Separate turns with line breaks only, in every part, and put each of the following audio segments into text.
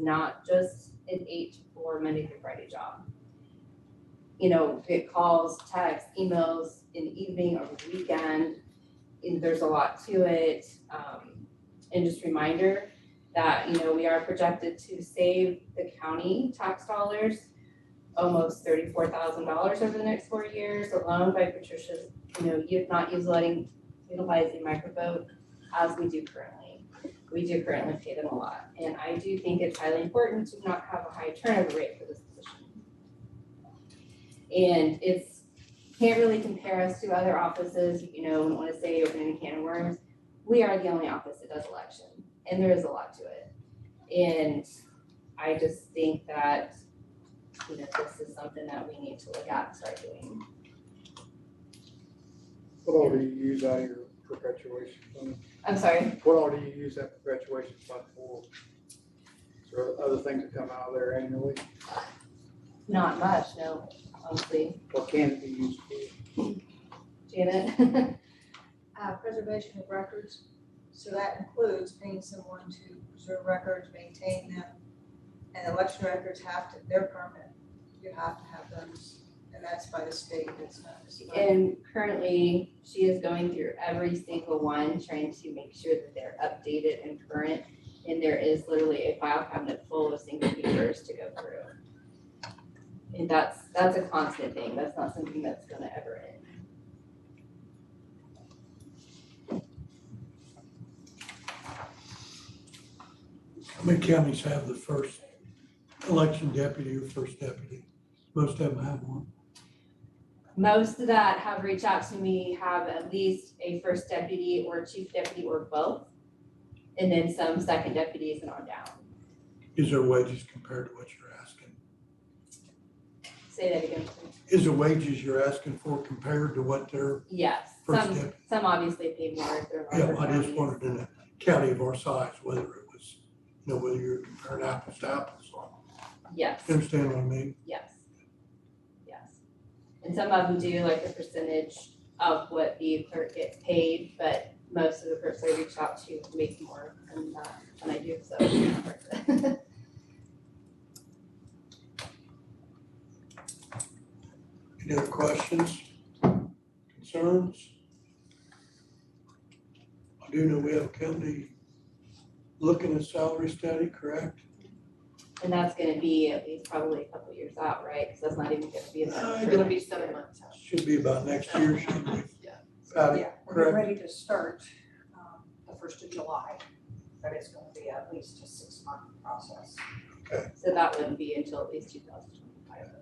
not just an eight to four Monday through Friday job. You know, get calls, texts, emails in the evening or the weekend, and there's a lot to it. Um, and just reminder that, you know, we are projected to save the county tax dollars almost thirty-four thousand dollars over the next four years alone by Patricia's, you know, you not use letting, utilizing microvote as we do currently. We do currently pay them a lot, and I do think it's highly important to not have a high turnover rate for this position. And it's, can't really compare us to other offices, you know, I don't wanna say opening a can of worms. We are the only office that does election, and there is a lot to it. And I just think that you know, this is something that we need to look at, and start doing.
What all do you use out of your perpetuation fund?
I'm sorry,
What all do you use that perpetuation fund for? Is there other things that come out of there annually?
not much, no, honestly,
What can it be used for?
Janet.
uh, preservation of records. So that includes paying someone to preserve records, maintain them. And election records have to, they're permanent, you have to have those, and that's by the state, it's not just. by-
And currently, she is going through every single one, trying to make sure that they're updated and current. And there is literally a file cabinet full of single papers to go through. And that's, that's a constant thing, that's not something that's gonna ever end.
How many counties have the first election deputy or first deputy? Most of them have one.
Most of that have reached out to me, have at least a first deputy or chief deputy or both. And then some second deputies and on down.
Is their wages compared to what you're asking?
Say that again. please.
Is the wages you're asking for compared to what their
Yes,
first
some,
deputy?
some obviously pay more if they're
Yeah,
larger
I just
counties.
wondered in a county of our size, whether it was, you know, whether you're comparing apples to apples.
Yes,
You Understand what I mean?
yes, yes. And some of them do like a percentage of what the clerk gets paid, but most of the clerks I reach out to make more than that, than I do, so. it's not worth it.
Any other questions, concerns? I do know we have a county looking at salary study, correct?
And that's gonna be at least probably a couple years out, right? Cause that's not even gonna be.
Uh,
about-
it'll
be seven months out.
Should be about next year, shouldn't we?
Yeah.
Patty,
Yeah, we're
correct?
ready to start um, the first of July, but it's gonna be at least a six-month process.
So that wouldn't be until at least two thousand twenty-five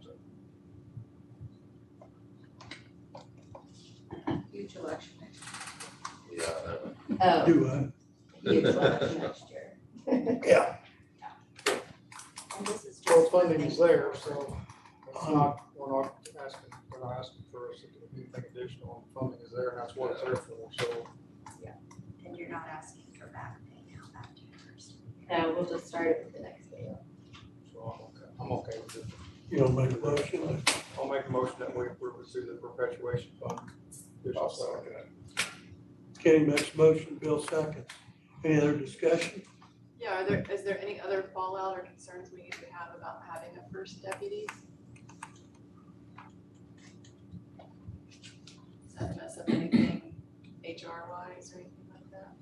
budget.
Huge election next year.
Yeah, that one.
Oh,
Do I?
huge election next year.
Yeah.
And this is
Well,
just.
funding is there, so it's not, we're not asking, we're not asking for anything additional. Funding is there and that's what it's there for, so.
And you're not asking for back pay now, back to your first.
Now, we'll just start it with the next meeting.
So I'm okay, I'm okay with it.
You don't make a motion,
I'll make a motion that we we pursue the perpetuation fund. I'll second it.
Kenny makes a motion, Bill seconds. Any other discussion?
Yeah, are there, is there any other fallout or concerns we need to have about having a first deputy? Does that mess up anything HR wise or anything like that?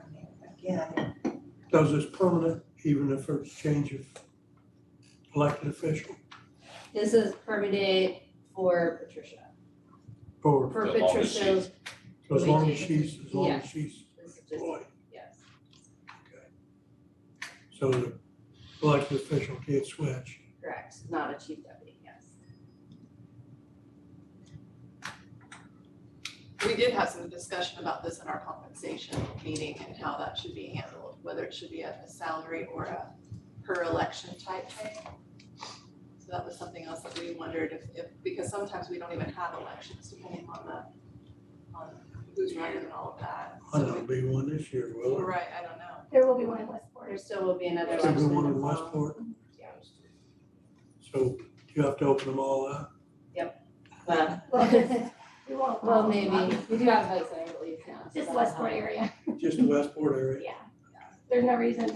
I mean, again,
Does this permanent, even if it's change of elected official
This is permitted for Patricia.
or
For
As long as
Patricia,
as long as she's, as long as she's
this is just,
employed?
yes,
So the elected official can't switch.
correct, not a chief deputy, yes.
We did have some discussion about this in our compensation meeting and how that should be handled, whether it should be a a salary or a per election type thing. So that was something else that we wondered if, if, because sometimes we don't even have elections depending on the, on who's running and all of that.
I know
So
there'll be one this year,
we-
will there?
Right, I don't know.
There will be one in Westport.
There still will be another
Is
election.
there one in
the fall.
Westport?
Yeah.
So you have to open them all up?
Well,
We won't.
well, maybe, we do have votes, I believe, now. so
Just
that'll
Westport
help.
area,
Just the Westport area?
yeah. There's no reason